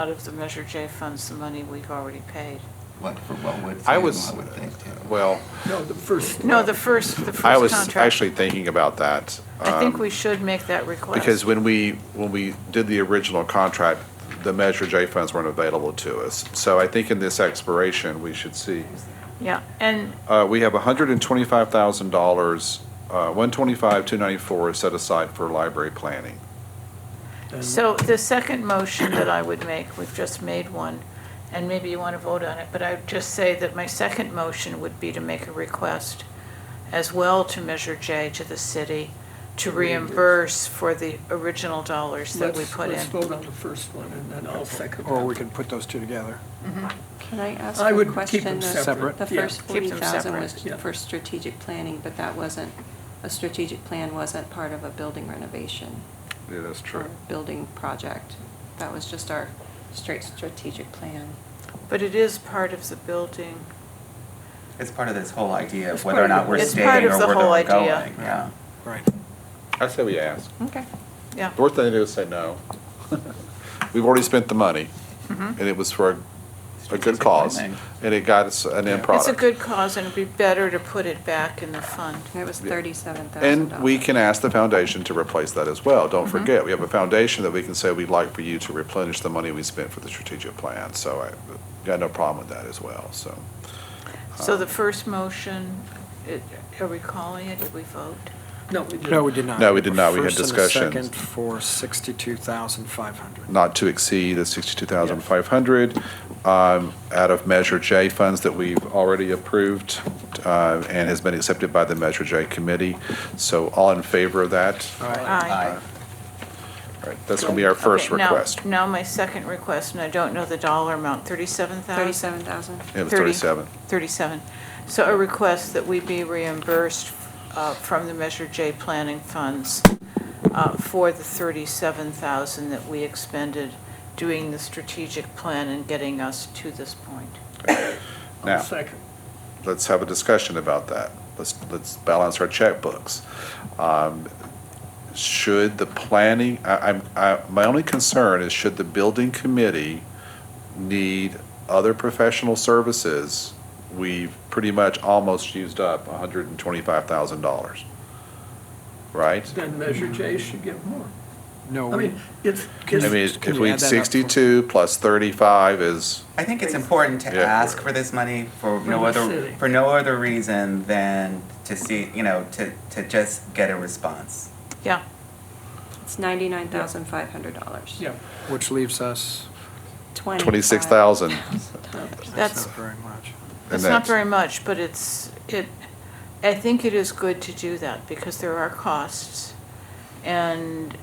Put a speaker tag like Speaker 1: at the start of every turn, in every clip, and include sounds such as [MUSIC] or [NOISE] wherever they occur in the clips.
Speaker 1: out of the Measure J funds, the money we've already paid.
Speaker 2: What, for what would,
Speaker 3: I
Speaker 2: I would
Speaker 3: was-
Speaker 2: think, too.
Speaker 3: Well,
Speaker 4: No, the first.
Speaker 1: No, the first, the first
Speaker 3: I was
Speaker 1: contract.
Speaker 3: actually thinking about that.
Speaker 1: I think
Speaker 3: um,
Speaker 1: we should make that request.
Speaker 3: Because when we, when we did the original contract, the Measure J funds weren't available to us. So I think in this expiration, we should see,
Speaker 1: Yeah, and
Speaker 3: uh, we have $125,000, uh, 125, 294 is set aside for library planning.
Speaker 4: and-
Speaker 1: so the second motion that I would make, we've just made one, and maybe you want to vote on it, but I would just say that my second motion would be to make a request as well to Measure J to the city to reimburse for the original dollars that we
Speaker 4: Let's-
Speaker 1: put in.
Speaker 4: Let's vote on the first one, and then I'll second
Speaker 5: Or we
Speaker 4: that.
Speaker 5: can put those two together.
Speaker 6: Can I ask
Speaker 4: I
Speaker 6: a
Speaker 4: would keep
Speaker 6: question?
Speaker 4: them
Speaker 6: The-
Speaker 4: separate.
Speaker 6: The
Speaker 4: Yeah.
Speaker 1: Keep
Speaker 6: first
Speaker 1: them
Speaker 6: 40,000 was
Speaker 4: separate, yeah.
Speaker 6: for strategic planning, but that wasn't, a strategic plan wasn't part of a building renovation
Speaker 3: Yeah, that's
Speaker 6: or
Speaker 3: true.
Speaker 6: building project. That was just our straight strategic plan.
Speaker 1: But it is part of the building.
Speaker 2: It's part of this whole idea
Speaker 4: It's
Speaker 2: of whether or
Speaker 4: part of-
Speaker 2: not we're
Speaker 1: It's
Speaker 2: staying
Speaker 1: part
Speaker 2: or
Speaker 1: of the
Speaker 2: whether
Speaker 1: whole
Speaker 2: we're
Speaker 1: idea.
Speaker 2: going, yeah.
Speaker 5: Right.
Speaker 3: I say we ask.
Speaker 6: Okay.
Speaker 1: Yeah,
Speaker 3: The worst thing to do is say no. [LAUGHS] We've already spent the money,
Speaker 1: mm-hmm.
Speaker 3: and it was for a- a good
Speaker 2: Strategic
Speaker 3: cause,
Speaker 2: planning.
Speaker 3: and it got us an end
Speaker 1: it's
Speaker 3: product.
Speaker 1: a good cause, and it'd be better to put it back in the fund.
Speaker 6: It was
Speaker 3: Yeah.
Speaker 6: $37,000.
Speaker 3: And we can ask the foundation to replace that as well.
Speaker 1: Mm-hmm.
Speaker 3: Don't forget, we have a foundation that we can say, we'd like for you to replenish the money we spent for the strategic plan. So I got no problem with that as well, so.
Speaker 1: So the first motion, it- are we calling it, did we vote?
Speaker 4: No, we didn't.
Speaker 5: No, we did not.
Speaker 3: No, we did not. We had
Speaker 5: First and the
Speaker 3: discussions.
Speaker 5: second for 62,500.
Speaker 3: Not to exceed the sixty-two thousand five hundred, um, out of Measure J funds that we've already approved, uh, and has been accepted by the Measure J committee. So all in favor of that?
Speaker 5: All right.
Speaker 1: Aye.
Speaker 3: All right, that's gonna be our first
Speaker 1: Okay, now-
Speaker 3: request.
Speaker 1: Now, my second request, and I don't know the dollar amount, 37,000?
Speaker 6: 37,000.
Speaker 3: It was
Speaker 1: Thirty.
Speaker 3: thirty-seven.
Speaker 1: 37. So a request that we be reimbursed uh, from the Measure J planning funds uh, for the 37,000 that we expended doing the strategic plan and getting us to this point.
Speaker 3: Now.
Speaker 4: I'll second.
Speaker 3: let's have a discussion about that. Let's, let's balance our checkbooks. Um, Should the planning, I, I'm, I, my only concern is should the building committee need other professional services? We've pretty much almost used up hundred and twenty-five thousand dollars, right?
Speaker 4: Then Measure J should get more.
Speaker 5: Mm-hmm. No,
Speaker 4: I
Speaker 5: we,
Speaker 4: mean, it's.
Speaker 3: I
Speaker 5: Can-
Speaker 3: mean,
Speaker 4: it's-
Speaker 5: can
Speaker 3: if
Speaker 5: you
Speaker 3: we,
Speaker 5: add that up for-
Speaker 3: sixty-two plus thirty-five is,
Speaker 2: I think it's important to
Speaker 3: Yeah.
Speaker 2: ask for this money for
Speaker 4: From
Speaker 2: no
Speaker 4: the
Speaker 2: other,
Speaker 4: city.
Speaker 2: for no other reason than to see, you know, to, to just get a response.
Speaker 1: Yeah,
Speaker 6: It's $99,500.
Speaker 4: Yeah,
Speaker 1: Uh,
Speaker 5: which leaves us,
Speaker 3: $26,000.
Speaker 6: $25,000.
Speaker 1: that's,
Speaker 5: that's not very much.
Speaker 1: that's not
Speaker 3: that's-
Speaker 1: very much, but it's, it, I think it is good to do that because there are costs. And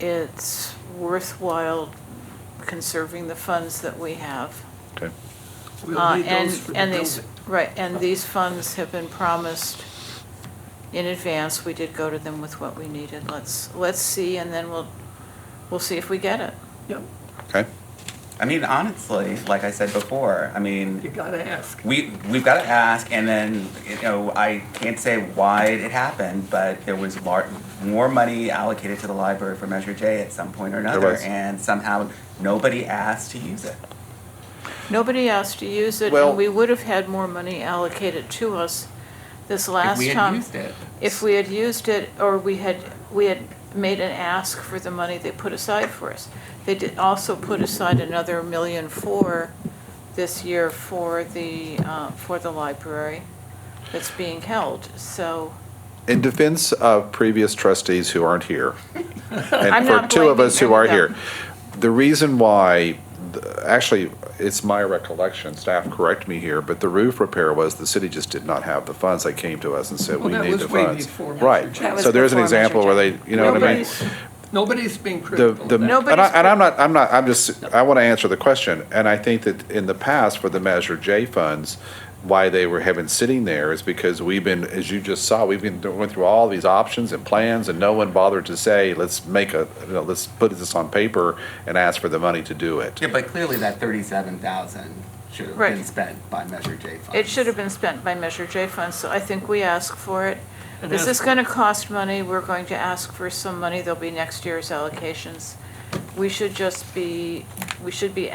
Speaker 1: it's worthwhile conserving the funds that we have.
Speaker 3: okay,
Speaker 4: we'll
Speaker 1: Uh,
Speaker 4: need
Speaker 1: and-
Speaker 4: those for the
Speaker 1: and these-
Speaker 4: building.
Speaker 1: Right, and these funds have been promised in advance. We did go to them with what we needed. Let's, let's see, and then we'll, we'll see if we get it.
Speaker 4: Yep,
Speaker 3: okay?
Speaker 2: I mean, honestly, like I said before, I mean,
Speaker 4: you gotta ask.
Speaker 2: we we've got to ask, and then you know I can't say why it happened, but there was lar- more money allocated to the library for Measure J at some point or
Speaker 3: There
Speaker 2: another,
Speaker 3: was.
Speaker 2: and somehow nobody asked to use it.
Speaker 1: Nobody asked to use it,
Speaker 3: Well-
Speaker 1: and we would have had more money allocated to us this last
Speaker 2: we had
Speaker 1: time.
Speaker 2: used it.
Speaker 1: If we had used it, or we had, we had made an ask for the money they put aside for us. They did also put aside another million for this year for the, uh, for the library that's being held, so.
Speaker 3: In defense of previous trustees who aren't here,
Speaker 1: I'm
Speaker 3: and for
Speaker 1: not
Speaker 3: two of
Speaker 1: blaming
Speaker 3: us who are
Speaker 1: them,
Speaker 3: here, the reason why, th- actually, it's my recollection, staff correct me here, but the roof repair was the city just did not have the funds. They came to us and said,
Speaker 4: Well,
Speaker 3: we
Speaker 4: that
Speaker 3: need
Speaker 4: was
Speaker 3: the
Speaker 4: way
Speaker 3: funds.
Speaker 4: before Mr. Jackson.
Speaker 6: That
Speaker 3: Right.
Speaker 6: was
Speaker 3: So there's an
Speaker 6: before Mr.
Speaker 3: example where they, you know what I mean?
Speaker 4: Nobody's- Nobody's being
Speaker 3: The,
Speaker 4: critical of
Speaker 3: the,
Speaker 4: that.
Speaker 1: No, but
Speaker 3: and I,
Speaker 1: it's-
Speaker 3: and I'm not, I'm not, I'm just, I want to answer the question. And I think that in the past for the Measure J funds, why they were having sitting there is because we've been, as you just saw, we've been, going through all these options and plans and no one bothered to say, let's make a, you know, let's put this on paper and ask for the money to do it.
Speaker 2: Yeah, but clearly that thirty-seven thousand should have
Speaker 1: Right.
Speaker 2: been spent by Measure J funds.
Speaker 1: It should have been spent by Measure J funds, so I think we ask for it.
Speaker 4: And
Speaker 1: This is
Speaker 4: ask-
Speaker 1: going to cost money, we're going to ask for some money, there'll be next year's allocations. We should just be, we should be